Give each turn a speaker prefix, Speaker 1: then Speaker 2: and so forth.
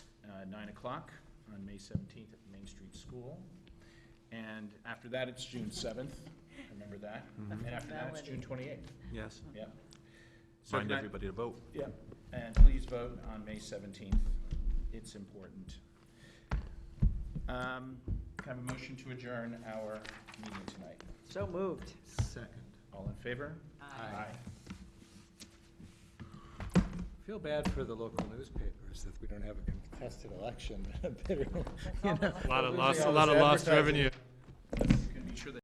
Speaker 1: uh, nine o'clock on May seventeenth at the Main Street School. And after that, it's June seventh, remember that? And after that, it's June twenty-eighth,
Speaker 2: Yes,
Speaker 1: yep. So
Speaker 2: remind
Speaker 1: can I-
Speaker 2: everybody to vote.
Speaker 1: yeah, and please vote on May 17th. It's important. Um, Can I have a motion to adjourn our meeting tonight?
Speaker 3: So moved.
Speaker 2: Second.
Speaker 1: All in favor?
Speaker 4: Feel bad for the local newspapers that we don't have a contested election. Lot
Speaker 5: Lot of lost, a lot of lost revenue.